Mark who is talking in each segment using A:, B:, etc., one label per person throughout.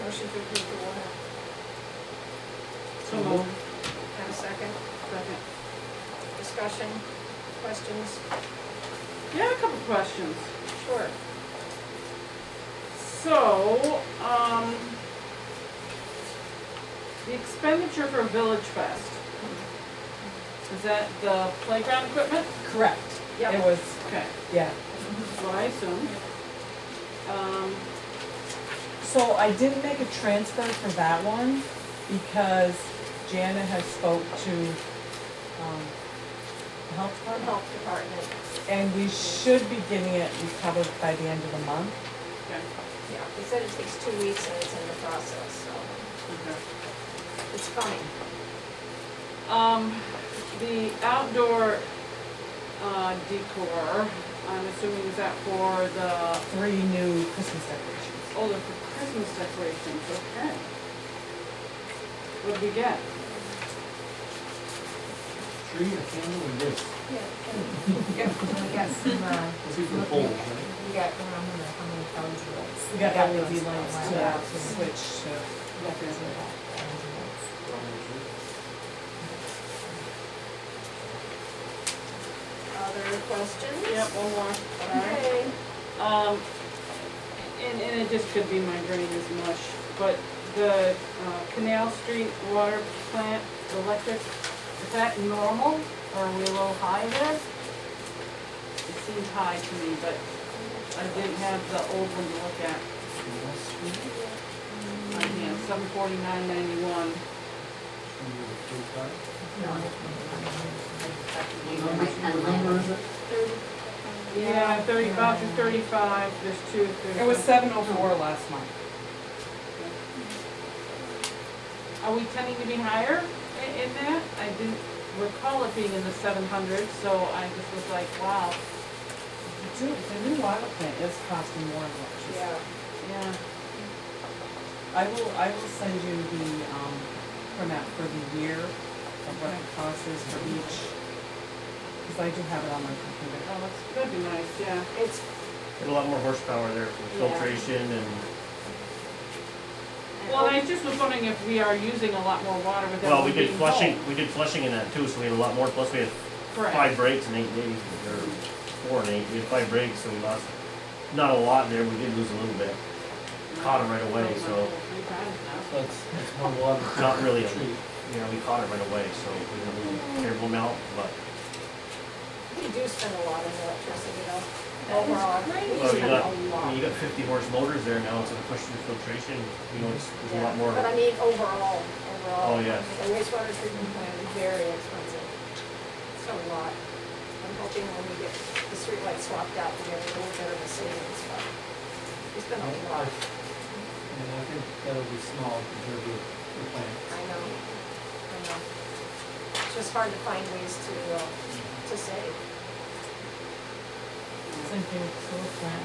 A: Motion to approve the warrant.
B: So moved.
A: Have a second?
B: Second.
A: Discussion? Questions?
B: Yeah, a couple questions.
A: Sure.
B: So, um, the expenditure for Village Fest, is that the playground equipment?
C: Correct.
A: Yep.
C: It was,
B: Okay,
C: yeah.
B: that's what I assumed. Um,
C: So I didn't make a transfer for that one because Jana has spoke to, um, the health
A: Our
C: department.
A: health department.
C: And we should be getting it recovered by the end of the month.
B: okay,
A: Yeah, they said it takes two weeks and it's in the process, so
B: okay.
A: it's coming.
B: Um, the outdoor, uh, decor, I'm assuming is that for the,
C: Three new Christmas decorations.
B: oh, they're for Christmas decorations, okay. What did we get?
D: Tree, a candle, and this.
E: Yeah, we got some, uh,
D: This is the poles, right?
E: we got, I don't know how many LED lights.
C: We got LED lights
E: We got
C: to
E: those
C: switch
E: lights.
C: to.
E: We got those LED
A: Other questions?
B: Yep, one more.
A: Okay.
B: Um, and, and it just could be my brain is mush, but the uh, Canal Street water plant electric, is that normal or are we a little high there? It seems high to me, but I didn't have the old one to look at on hand, seven forty-nine ninety-one.
D: What number is it?
B: Yeah, thirty-five to thirty-five, there's two, there's.
C: It was seven oh four last month.
B: Are we tending to be higher i- in that? I didn't recall it being in the seven hundreds, so I just was like, wow,
C: Dude, the new water plant is costing more than what
A: Yeah.
B: yeah.
C: I will, I will send you the, um, printout for the year of what it costs is for each. Cause I do have it on my computer.
B: Oh, that's, that'd be nice, yeah.
A: It's,
F: Get a lot more horsepower there for
A: Yeah.
F: filtration and
B: Well, I just was wondering if we are using a lot more water with that.
F: well, we did flushing. We did flushing in that too, so we had a lot more. Plus, we had
B: Correct.
F: five breaks in eight days, or four and eight. We had five breaks, so we lost not a lot there. We did lose a little bit. Caught it right away,
B: Oh,
F: so
B: Three times now.
D: That's, that's one water.
F: not really. A, you know, we caught it right away, so we didn't lose a terrible amount. But
A: we do spend a lot on electricity though. Overall, we
F: well, you
A: spend a
F: got I mean,
A: lot.
F: you got 50 horse motors there now. It's a question of filtration. You know, it's, there's a
A: Yeah,
F: lot more.
A: But I mean, overall, overall.
F: Oh, yes.
A: The wastewater treatment plant is very expensive. It's a lot. I'm hoping when we get the streetlight swapped out, we get a little bit of a savings, but it's been a lot,
D: And I think that'll be small compared to the plant.
A: I know, I know. It's just hard to find ways to, uh, to save.
C: Same thing with sewer plant.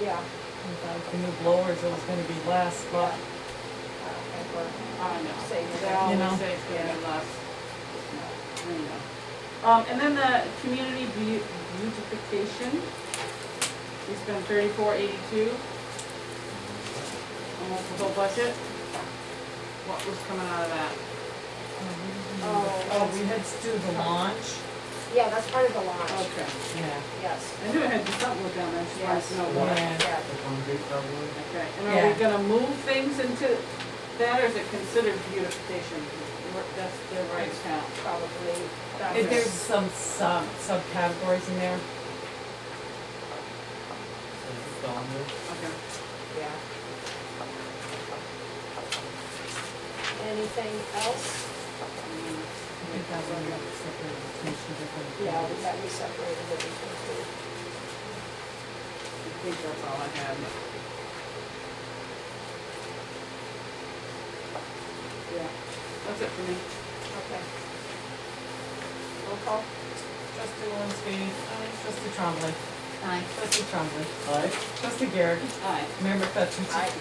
A: Yeah,
C: Without the new blowers, it was gonna be less, but
A: I don't think Uh, we're,
B: I know,
A: Say
B: they
A: that,
C: you
B: always
C: know.
B: say it's gonna be less. I know. Um, and then the community beau- beautification, we spent thirty-four eighty-two. Almost the whole budget. What was coming out of that?
A: Oh,
C: Oh, we had to do the launch,
A: yeah, that's part of the launch,
B: Okay.
C: yeah.
A: yes.
B: I knew it had to be something with them, I just wanted to know what.
C: Yeah.
A: Yeah.
D: The concrete probably.
B: Okay, and are
C: Yeah.
B: we gonna move things into that, or is it considered beautification? That's the right count.
A: probably. Oh,
C: If there's some sub, subcategories in there,
D: So it's down there.
B: Okay.
A: Yeah. Anything else?
B: Mm,
C: I think that one got separated between two different.
A: Yeah, we
C: things.
A: got, we separated it between
B: I think that's all I had. Yeah, that's it for me.
A: two. Okay. Roll call?
C: Trustee Malinsky. Trustee Trombley.
E: Aye.
C: Trustee Trombley.
D: Aye.
C: Trustee Garrett.
B: Aye.
C: Mayor McFetrich.
A: Aye.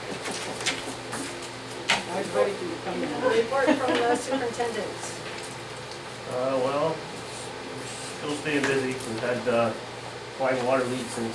B: I was ready for you to come in.
A: Report from the superintendent.
F: Uh, well, we're still staying busy. We've had, uh, flying water leaks since